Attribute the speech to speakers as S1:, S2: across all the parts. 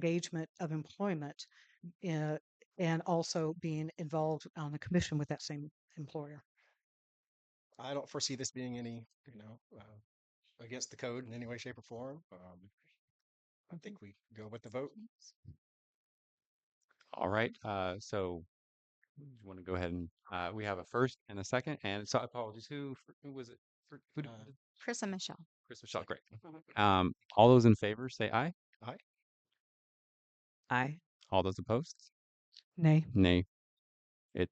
S1: engagement of employment uh, and also being involved on the commission with that same employer.
S2: I don't foresee this being any, you know, uh, against the code in any way, shape, or form. Um, I think we go with the vote.
S3: All right. Uh, so you want to go ahead and uh, we have a first and a second. And so apologies. Who, fir- who was it? Fir- Who,
S2: Uh, Mhm.
S3: did-
S4: Chris and Michelle.
S3: Chris Michelle. Great. Um, all those in favor say aye.
S1: Aye.
S3: All those opposed?
S1: Nay.
S3: Nay. It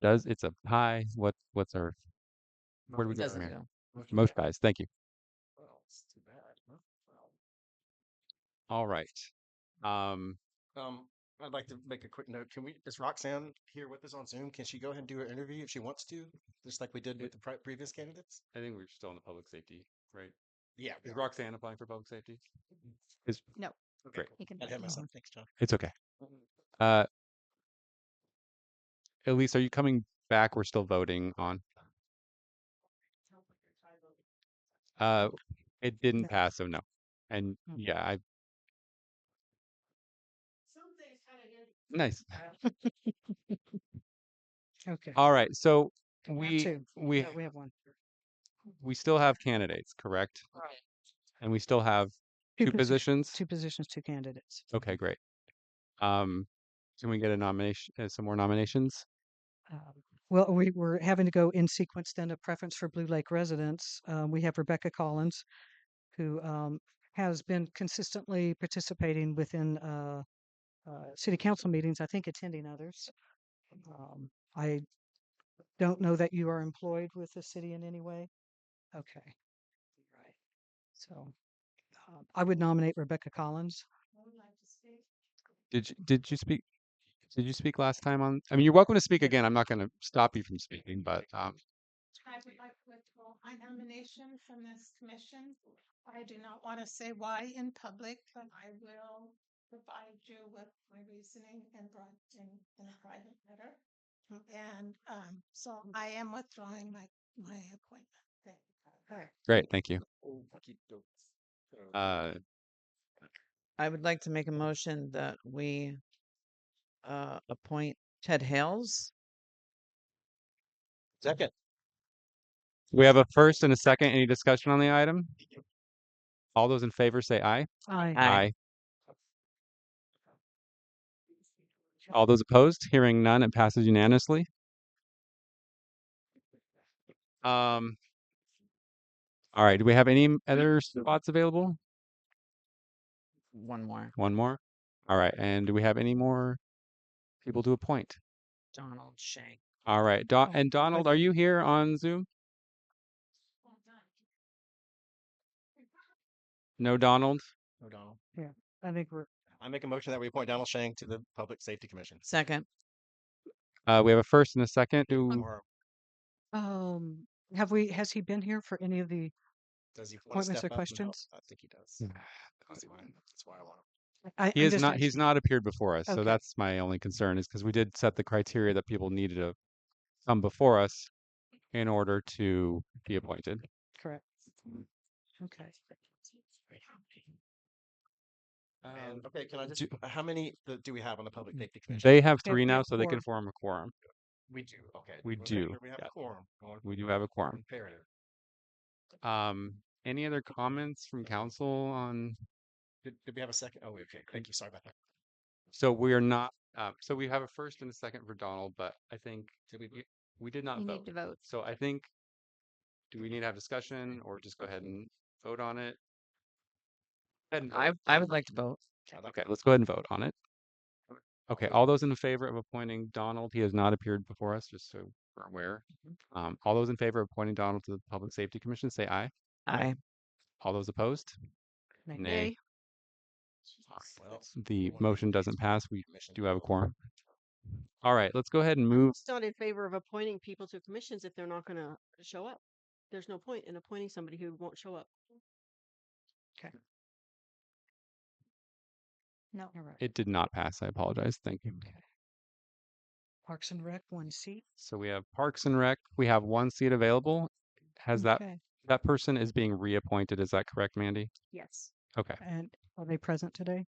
S3: does. It's a tie. What? What's our? Where do we go from
S5: Doesn't
S3: here?
S5: go.
S3: Most ties. Thank you.
S2: Well, it's too bad. huh? Well,
S3: All right. Um,
S2: Um, I'd like to make a quick note. Can we, is Roxanne here with us on Zoom? Can she go ahead and do her interview if she wants to, just like we did with the pri- previous candidates?
S3: I think we're still on the public safety, right?
S2: Yeah. we
S3: Is
S2: are.
S3: Roxanne applying for public safety? Is
S2: Okay,
S3: Great.
S2: cool.
S4: You can
S2: I'd have
S4: vote.
S2: myself. Thanks, John.
S3: it's okay. Uh, Elise, are you coming back? We're still voting on. Uh, it didn't
S1: No.
S3: pass, so no. And
S1: Mm.
S3: yeah, I. Nice.
S1: Okay.
S3: All right, so
S1: We have
S3: Uh, we
S1: two.
S3: we
S1: No, we have one.
S3: we still have candidates, correct?
S5: Right.
S3: And we still have two
S1: posi-
S3: positions.
S1: Two positions, two candidates.
S3: Okay, great. Um, can we get a nomination? Uh, some more nominations?
S1: Um, Well, we were having to go in sequence then a preference for Blue Lake residents. Um, we have Rebecca Collins, who um, has been consistently participating within uh, uh, city council meetings, I think attending others. Um, I don't know that you are employed with the city in any way. Okay. Right. So uh, I would nominate Rebecca Collins.
S3: Did you, did you speak? Did you speak last time on? I mean, you're welcome to speak again. I'm not going to stop you from speaking, but um,
S6: I would like to withdraw my nomination from this commission. I do not want to say why in public, but I will provide you with my reasoning in brought in, in a private letter. And, um, so I am withdrawing my, my appointment. Thank you.
S3: great. Thank you.
S2: Okey-doke.
S3: Uh,
S5: I would like to make a motion that we uh, appoint Ted Hales.
S2: Second.
S3: we have a first and a second. Any discussion on the item? All those in favor say aye.
S1: Aye.
S5: Aye.
S3: All those opposed? Hearing none, it passes unanimously. Um, all right. Do we have any m- other spots available?
S5: One more,
S3: One more. All right. And do we have any more people to appoint?
S5: Donald Shank.
S3: All right. Don
S1: Oh,
S3: and Donald, are you here on Zoom? No, Donald.
S2: No, Donald.
S1: I think we're,
S2: I make a motion that we appoint Donald Shang to the Public Safety Commission.
S5: Second,
S3: Uh, we have a first and a second. Do
S2: Or
S1: um, have we, has he been here for any of the
S2: does he want to
S1: Appointments
S2: step
S1: or
S2: up and help?
S1: questions?
S2: I think he does.
S3: Hmm.
S2: That's why, that's why I want him.
S1: I,
S3: he
S1: I'm
S3: is
S1: just
S3: not. He's
S1: asking.
S3: not appeared before us, so
S1: Okay.
S3: that's my only concern. Is because we did set the criteria that people needed to come before us in order to be appointed.
S1: correct. Okay.
S2: And, okay, can I just,
S3: Um, do- Mm,
S2: how many th- do we have on the Public Safety Commission?
S3: They have
S1: Yeah,
S3: three
S1: we
S3: now,
S1: have
S3: so they can
S1: quorum.
S3: form a quorum.
S2: We do, okay.
S3: We
S2: We'll make
S3: do,
S2: sure We have
S3: yeah.
S2: a quorum. Well,
S3: We do have a quorum.
S2: Imperative.
S3: Um, any other comments from council on?
S2: Did, did we have a second? Oh, okay, thank you, sorry about that.
S3: So we are not. Uh, so we have a first and a second for Donald, but I think did we we did not
S4: You
S3: vote.
S4: need to vote.
S3: So I think, do we need to have discussion or just go ahead and vote on it? Go ahead and
S5: I
S3: vote.
S5: I would like to vote.
S2: I'd like-
S3: Okay, let's go ahead and vote on it. Okay, all those in favor of appointing Donald, he has not appeared before us, just so we're aware. Um, all those in favor of appointing Donald to the Public Safety Commission, say aye.
S5: I
S3: All those opposed?
S1: Nay.
S3: Nay.
S2: Well,
S3: The
S2: one
S3: motion
S2: abstained.
S3: doesn't pass. We
S2: Commission.
S3: do have a quorum. All right, let's go ahead and move.
S7: It's not in favor of appointing people to commissions if they're not gonna show up. There's no point in appointing somebody who won't show up.
S4: No.
S1: All right.
S3: It did not pass. I apologize. Thank you.
S1: Parks and Rec, one seat.
S3: So we have Parks and Rec. We have one seat available. Has that,
S1: Okay.
S3: that person is being reappointed. Is that correct, Mandy?
S4: Yes.
S3: Okay.
S1: And are they present today?